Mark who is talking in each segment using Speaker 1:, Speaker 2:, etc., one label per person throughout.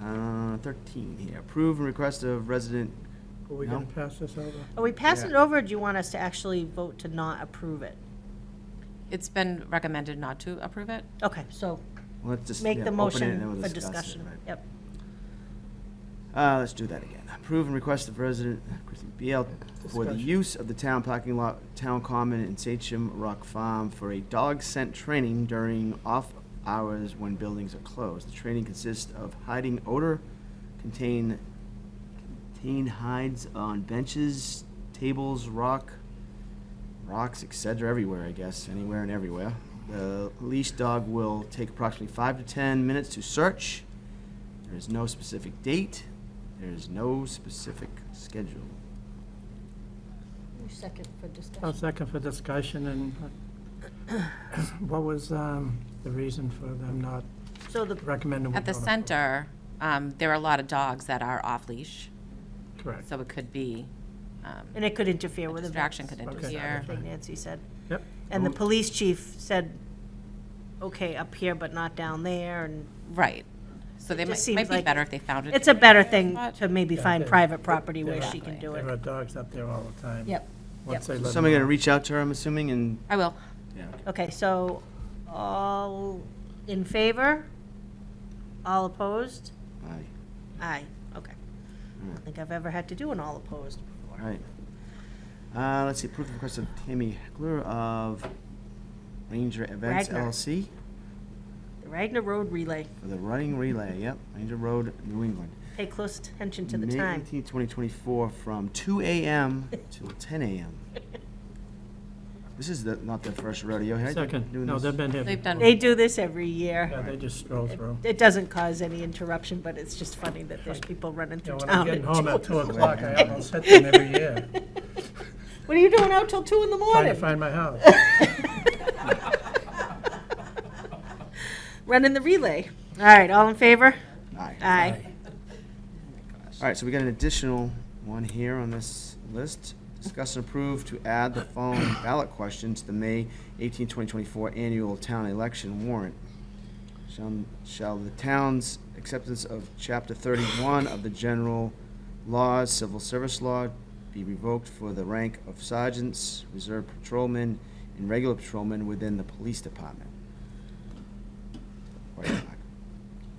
Speaker 1: Uh, thirteen here, approve and request of resident,
Speaker 2: Are we
Speaker 1: No.
Speaker 2: gonna pass this over?
Speaker 3: Are we passing it
Speaker 1: Yeah.
Speaker 3: over, or do you want us to actually vote to not approve it?
Speaker 4: It's been recommended not to approve it.
Speaker 3: Okay, so
Speaker 1: let's just, yeah,
Speaker 3: make the
Speaker 1: open it and then
Speaker 3: motion
Speaker 1: we'll
Speaker 3: for
Speaker 1: discuss it,
Speaker 3: discussion.
Speaker 1: right?
Speaker 3: Yep.
Speaker 1: Uh, let's do that again. Approve and request of resident Christie BL for the
Speaker 2: Discussion.
Speaker 1: use of the town parking lot, town common in Sachem Rock Farm for a dog scent training during off hours when buildings are closed. The training consists of hiding odor, contain, contain hides on benches, tables, rock, rocks, etc., everywhere, I guess, anywhere and everywhere. The leash dog will take approximately five to ten minutes to search. There is no specific date. There is no specific schedule.
Speaker 3: Second for
Speaker 2: I'll
Speaker 3: discussion.
Speaker 2: second for discussion, and uh, what was um, the reason for them not
Speaker 3: So the,
Speaker 2: recommending? we
Speaker 4: At the
Speaker 2: vote on-
Speaker 4: center, um, there are a lot of dogs that are off-leash,
Speaker 2: Correct.
Speaker 4: so it could be, um,
Speaker 3: and it could interfere
Speaker 4: a
Speaker 3: with events,
Speaker 4: distraction could
Speaker 2: Okay.
Speaker 4: interfere.
Speaker 3: I think Nancy said.
Speaker 2: Yep,
Speaker 3: And the
Speaker 1: Oh.
Speaker 3: police chief said, okay, up here, but not down there, and
Speaker 4: Right. So they
Speaker 3: It just
Speaker 4: might, might
Speaker 3: seems
Speaker 4: be
Speaker 3: like-
Speaker 4: better if they found it.
Speaker 3: it's a better thing
Speaker 4: But-
Speaker 3: to maybe find private property where she can do
Speaker 2: there
Speaker 3: it.
Speaker 2: are uh, dogs up there all the time.
Speaker 3: Yep,
Speaker 2: Once they let
Speaker 1: Somebody
Speaker 2: them
Speaker 1: gonna reach out to her, I'm assuming, and,
Speaker 4: I will.
Speaker 1: yeah,
Speaker 3: okay, so all in favor? All opposed?
Speaker 1: aye,
Speaker 3: Aye, okay. I don't think I've ever had to do an all opposed
Speaker 1: all
Speaker 3: before.
Speaker 1: right. Uh, let's see, approve the request of Tammy Heckler of Ranger Events
Speaker 3: Ragnar.
Speaker 1: LLC
Speaker 3: The Ragnar Road Relay,
Speaker 1: for the running relay, yep, Ranger Road, New England.
Speaker 3: pay close attention to the
Speaker 1: May
Speaker 3: time.
Speaker 1: eighteenth, twenty twenty-four, from two AM till ten AM. This is the, not the first rodeo,
Speaker 2: out.
Speaker 1: right?
Speaker 2: Second,
Speaker 1: Doing
Speaker 2: no,
Speaker 1: this?
Speaker 2: they've been here.
Speaker 4: They've done-
Speaker 2: before.
Speaker 3: They do this every
Speaker 2: Yeah,
Speaker 3: year.
Speaker 2: they just stroll through.
Speaker 3: It doesn't cause any interruption, but it's just funny that there's people running
Speaker 2: Yeah,
Speaker 3: through
Speaker 2: when I'm
Speaker 3: town.
Speaker 2: getting
Speaker 3: at
Speaker 2: home at
Speaker 3: 2:00.
Speaker 2: two o'clock, I almost hit them every year,
Speaker 3: What are you doing out till two in the
Speaker 2: trying to
Speaker 3: morning?
Speaker 2: find my house.
Speaker 3: Running the relay. All right, all in favor?
Speaker 1: Aye.
Speaker 3: Aye.
Speaker 1: All right, so we got an additional one here on this list. Discuss and approve to add the following ballot question to the May 18, 2024 annual town election warrant. Shall, shall the town's acceptance of Chapter 31 of the general laws, civil service law, be revoked for the rank of sergeants, reserve patrolmen, and regular patrolmen within the police department? Question mark.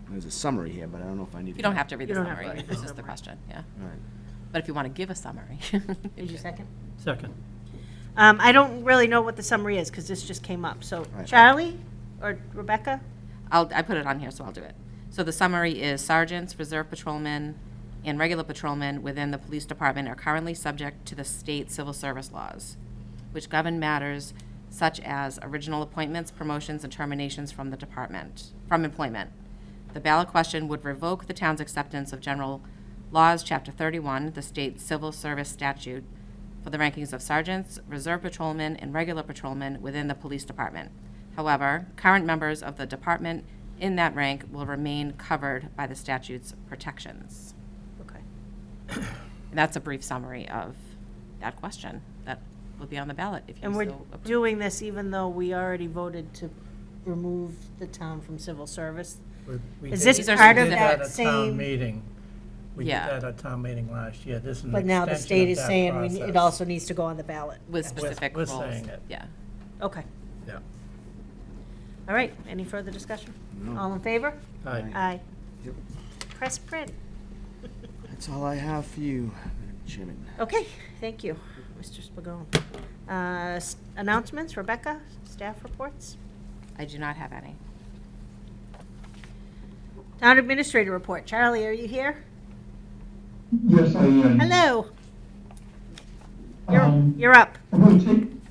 Speaker 1: There's a summary here, but I don't know if I need.
Speaker 4: You don't have to read
Speaker 3: You
Speaker 4: the
Speaker 3: don't have to
Speaker 4: summary.
Speaker 3: read the
Speaker 4: It's just the
Speaker 3: summary.
Speaker 4: question, yeah.
Speaker 1: All right.
Speaker 4: But if you want to give a summary.
Speaker 3: Did you second?
Speaker 2: Second,
Speaker 3: Um, I don't really know what the summary is, because this just came up. So
Speaker 1: Right.
Speaker 3: Charlie or Rebecca?
Speaker 4: I'll, I put it on here, so I'll do it. So the summary is sergeants, reserve patrolmen, and regular patrolmen within the police department are currently subject to the state civil service laws, which govern matters such as original appointments, promotions, and terminations from the department, from employment. The ballot question would revoke the town's acceptance of general laws, chapter thirty-one, the state civil service statute, for the rankings of sergeants, reserve patrolmen, and regular patrolmen within the police department. However, current members of the department in that rank will remain covered by the statute's protections.
Speaker 3: Okay.
Speaker 4: And that's a brief summary of that question that will be on the ballot if you
Speaker 3: And we're
Speaker 4: so approve.
Speaker 3: doing this even though we already voted to remove the town from civil service?
Speaker 2: we- we
Speaker 3: Is
Speaker 2: did-
Speaker 3: this
Speaker 4: These are
Speaker 3: part
Speaker 2: We
Speaker 3: of
Speaker 2: did
Speaker 3: that
Speaker 2: at
Speaker 3: same?
Speaker 2: town meeting. We did
Speaker 4: Yeah.
Speaker 2: that at town meeting last year. This is an
Speaker 3: But now the
Speaker 2: extension of
Speaker 3: state is
Speaker 2: that
Speaker 3: saying we, it
Speaker 2: process.
Speaker 3: also needs to go on the ballot.
Speaker 4: With specific
Speaker 2: we're
Speaker 4: roles.
Speaker 2: saying it.
Speaker 4: Yeah.
Speaker 3: Okay,
Speaker 2: Yeah.
Speaker 3: all right, any further discussion? All in favor?
Speaker 2: Aye.
Speaker 3: Aye.
Speaker 1: Yep.
Speaker 3: Press print.
Speaker 1: That's all I have for you, Madam Chairman.
Speaker 3: Okay, thank you, Mr. Spigot. Uh, s- Announcements, Rebecca, staff reports?
Speaker 4: I do not have any.
Speaker 3: Town administrator report, Charlie, are you here?
Speaker 5: Yes, I am.
Speaker 3: Hello, you're,
Speaker 5: Um,
Speaker 3: you're up.
Speaker 5: I'm going to take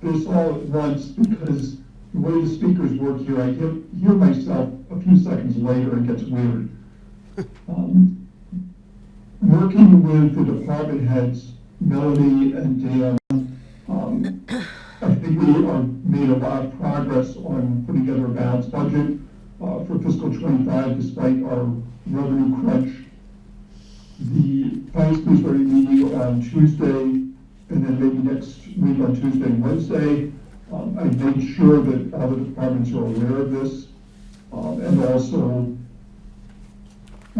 Speaker 5: this all at once because the way the speakers work here, I hear hear myself a few seconds later, it gets weird. Um, Working with the department heads, Melody and Dan, um, I think we are made a lot of progress on putting together a balanced budget uh, for fiscal '25 despite our revenue crunch. the finance committee meeting on Tuesday, and then maybe next week on Tuesday and Wednesday. Um, I made sure that all the departments are aware of this, um, and also